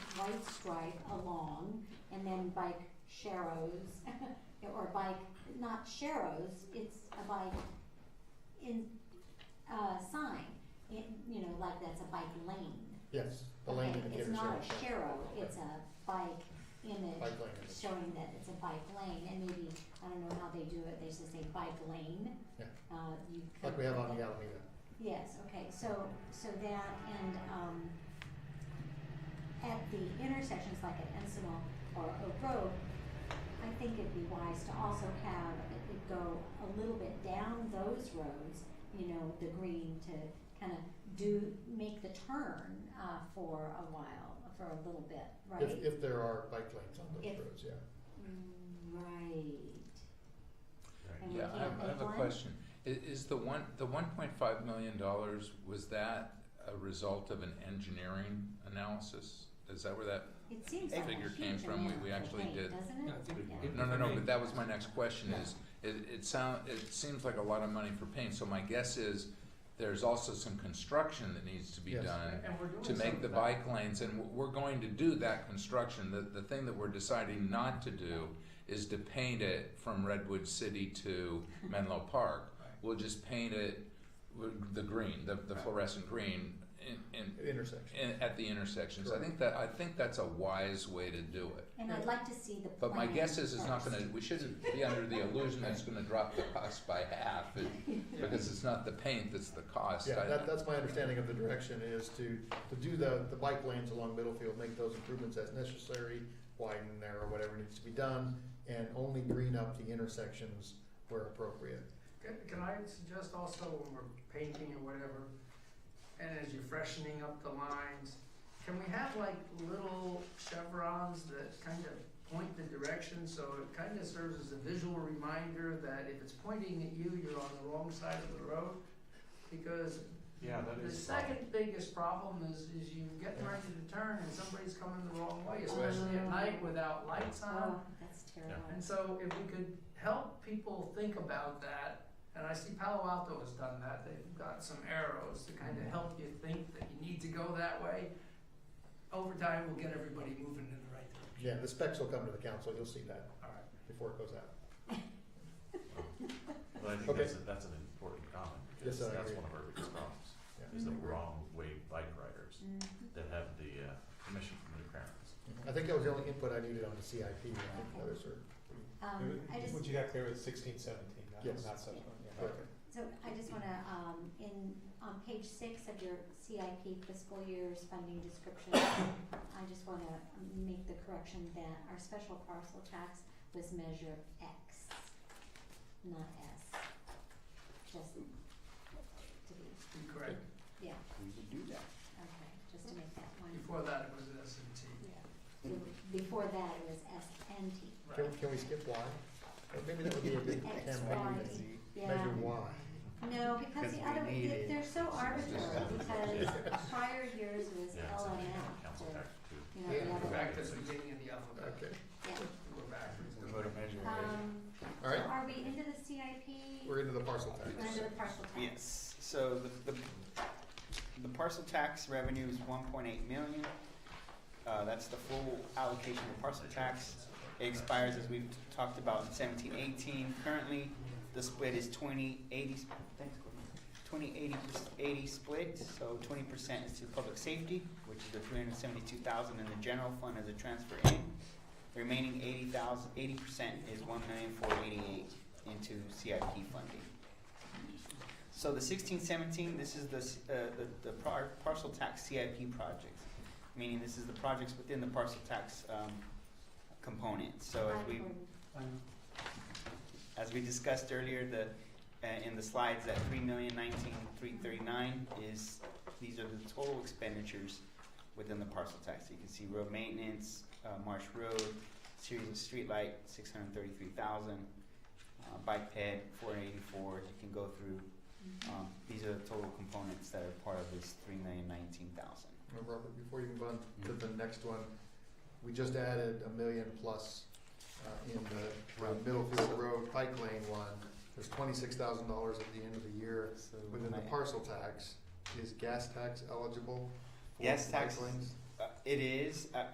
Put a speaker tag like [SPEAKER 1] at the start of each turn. [SPEAKER 1] right stripe along, and then bike sharrows, or bike, not sharrows, it's a bike in, uh, sign, it, you know, like that's a bike lane.
[SPEAKER 2] Yes, the lane
[SPEAKER 1] Okay,
[SPEAKER 2] indicators.
[SPEAKER 1] It's not
[SPEAKER 2] yeah,
[SPEAKER 1] a
[SPEAKER 2] sure.
[SPEAKER 1] sharrow, it's a bike image
[SPEAKER 2] Bike lane indicators.
[SPEAKER 1] showing that it's a bike lane, and maybe, I don't know how they do it, they just say bike lane.
[SPEAKER 2] Yeah.
[SPEAKER 1] Uh, you could.
[SPEAKER 2] like we have on the Alameda.
[SPEAKER 1] Yes, okay, so, so that and, um, at the intersections like at Ensenal or Oak Road, I think it'd be wise to also have it it go a little bit down those roads, you know, the green to kind of do, make the turn, uh, for a while, for a little bit, right?
[SPEAKER 2] If, if there are bike lanes on those
[SPEAKER 1] If-
[SPEAKER 2] roads, yeah.
[SPEAKER 1] Right. And we
[SPEAKER 3] Yeah, I
[SPEAKER 1] can't
[SPEAKER 3] have, I
[SPEAKER 1] make
[SPEAKER 3] have a
[SPEAKER 1] one?
[SPEAKER 3] question. I- is the one, the one point five million dollars, was that a result of an engineering analysis? Is that where that,
[SPEAKER 1] It seems like a
[SPEAKER 3] Figure
[SPEAKER 1] huge
[SPEAKER 3] came from, we-
[SPEAKER 1] amount
[SPEAKER 3] we
[SPEAKER 1] of
[SPEAKER 3] actually
[SPEAKER 1] paint,
[SPEAKER 3] did.
[SPEAKER 1] doesn't it?
[SPEAKER 4] I think
[SPEAKER 1] Yeah.
[SPEAKER 4] it-
[SPEAKER 3] no, no, no,
[SPEAKER 4] Okay.
[SPEAKER 3] but that was my next question
[SPEAKER 2] Yeah.
[SPEAKER 3] is, it, it sound, it seems like a lot of money for paint, so my guess is there's also some construction that needs to be
[SPEAKER 2] Yes.
[SPEAKER 3] done
[SPEAKER 4] And we're doing
[SPEAKER 3] to
[SPEAKER 4] some
[SPEAKER 3] make
[SPEAKER 4] of
[SPEAKER 3] the
[SPEAKER 4] that.
[SPEAKER 3] bike lanes, and w- we're going to do that construction. The, the thing that we're deciding not to do is to paint it from Redwood City to Menlo Park.
[SPEAKER 4] Right.
[SPEAKER 3] We'll just paint it with the green, the, the
[SPEAKER 4] Right.
[SPEAKER 3] fluorescent green in, in,
[SPEAKER 2] Intersection.
[SPEAKER 3] in, at the intersections. I
[SPEAKER 2] Correct.
[SPEAKER 3] think that, I think that's a wise way to do it.
[SPEAKER 1] And I'd like to see the plan
[SPEAKER 3] But my guess is it's not
[SPEAKER 1] first.
[SPEAKER 3] gonna, we shouldn't be under the illusion that it's gonna drop the cost by half, it- because it's not the paint that's the cost.
[SPEAKER 2] Yeah,
[SPEAKER 3] I-
[SPEAKER 2] that, that's my understanding of the direction is to, to do the, the bike lanes along Middlefield, make those improvements as necessary, widen there or whatever needs to be done, and only green up the intersections where appropriate.
[SPEAKER 5] Can, can I suggest also when we're painting or whatever, and as you're freshening up the lines, can we have like little chevrons that kind of point the direction, so it kind of serves as a visual reminder that if it's pointing at you, you're on the wrong side of the road? Because
[SPEAKER 4] Yeah, that
[SPEAKER 5] the
[SPEAKER 4] is.
[SPEAKER 5] second biggest problem is, is you get ready to turn and somebody's coming the wrong way, especially at night without lights on.
[SPEAKER 1] Oh, that's terrible.
[SPEAKER 5] And so if we could help people think about that, and I see Palo Alto has done that, they've got some arrows to kind of help you think that you need to go that way. Over time, we'll get everybody moving in the right direction.
[SPEAKER 2] Yeah, the specs will come to the council, you'll see that
[SPEAKER 5] All right.
[SPEAKER 2] before it goes out.
[SPEAKER 6] Well, I think
[SPEAKER 2] Okay.
[SPEAKER 6] that's, a- that's an important comment, because
[SPEAKER 2] Yes, I
[SPEAKER 6] that's
[SPEAKER 2] agree.
[SPEAKER 6] one of our biggest problems,
[SPEAKER 2] Yeah.
[SPEAKER 6] is the
[SPEAKER 1] Mhm.
[SPEAKER 6] wrong way bike riders
[SPEAKER 1] Mhm.
[SPEAKER 6] that have the, uh, permission from the parents.
[SPEAKER 2] I think that was the only input I needed on the CIP, I think the others are,
[SPEAKER 1] Um, I just,
[SPEAKER 4] What you got there was sixteen seventeen, not,
[SPEAKER 2] Yes.
[SPEAKER 4] not subsequent, yeah.
[SPEAKER 2] okay.
[SPEAKER 1] so I just wanna, um, in, on page six of your CIP fiscal year's funding description, I just wanna make the correction that our special parcel tax was measure X, not S. Just to be,
[SPEAKER 5] Be correct.
[SPEAKER 1] yeah,
[SPEAKER 7] we would do that.
[SPEAKER 1] okay, just to make that one,
[SPEAKER 5] Before that, it was S and T.
[SPEAKER 1] yeah. Before that, it was S and T.
[SPEAKER 2] Can, can we skip Y? Or maybe that would be a good
[SPEAKER 1] X,
[SPEAKER 2] camera,
[SPEAKER 1] Y, yeah.
[SPEAKER 2] measure Y.
[SPEAKER 1] No, because the
[SPEAKER 7] Because we
[SPEAKER 1] other,
[SPEAKER 7] need
[SPEAKER 1] they-
[SPEAKER 7] it.
[SPEAKER 1] they're so arbitrary, because prior years was
[SPEAKER 6] Yeah, it's
[SPEAKER 1] L and
[SPEAKER 6] actually
[SPEAKER 1] M,
[SPEAKER 6] council tax too.
[SPEAKER 1] you know, the
[SPEAKER 2] Yeah.
[SPEAKER 1] other,
[SPEAKER 5] We're
[SPEAKER 1] yeah.
[SPEAKER 5] back to the beginning of the alphabet.
[SPEAKER 2] Okay,
[SPEAKER 5] We're backwards.
[SPEAKER 4] We're voting measure,
[SPEAKER 1] Um, so
[SPEAKER 2] all right,
[SPEAKER 1] are we into the CIP?
[SPEAKER 2] we're into the parcel tax.
[SPEAKER 1] We're into the parcel tax?
[SPEAKER 7] Yes, so the, the, the parcel tax revenue is one point eight million. Uh, that's the full allocation of parcel tax. It expires, as we've talked about, in seventeen eighteen. Currently, the split is twenty eighty, thanks, Courtney. Twenty eighty, eighty split, so twenty percent is to public safety, which is the three hundred seventy-two thousand in the general fund as a transfer in. The Remaining eighty thousand, eighty percent is one million four eighty-eight into CIP funding. So the sixteen seventeen, this is the, s- uh, the, the par- parcel tax CIP projects, meaning this is the projects within the parcel tax, um, component. So as we, as we discussed earlier, the, uh, in the slides, that three million nineteen, three thirty-nine is, these are the total expenditures within the parcel tax. You can see road maintenance, uh, Marsh Road, series of streetlight, six hundred thirty-three thousand, uh, bike ped, four eighty-four, you can go through um, these are the total components that are part of this three million nineteen thousand.
[SPEAKER 2] Now, Robert, before you move on to the next one, we just added a million plus uh, in the uh, Middlefield Road Pike Lane one. There's twenty-six thousand dollars at the end of the year
[SPEAKER 7] So
[SPEAKER 2] within the
[SPEAKER 7] my-
[SPEAKER 2] parcel tax. Is gas tax eligible for
[SPEAKER 7] Gas
[SPEAKER 2] bike
[SPEAKER 7] tax-
[SPEAKER 2] lanes?
[SPEAKER 7] uh, It is, uh,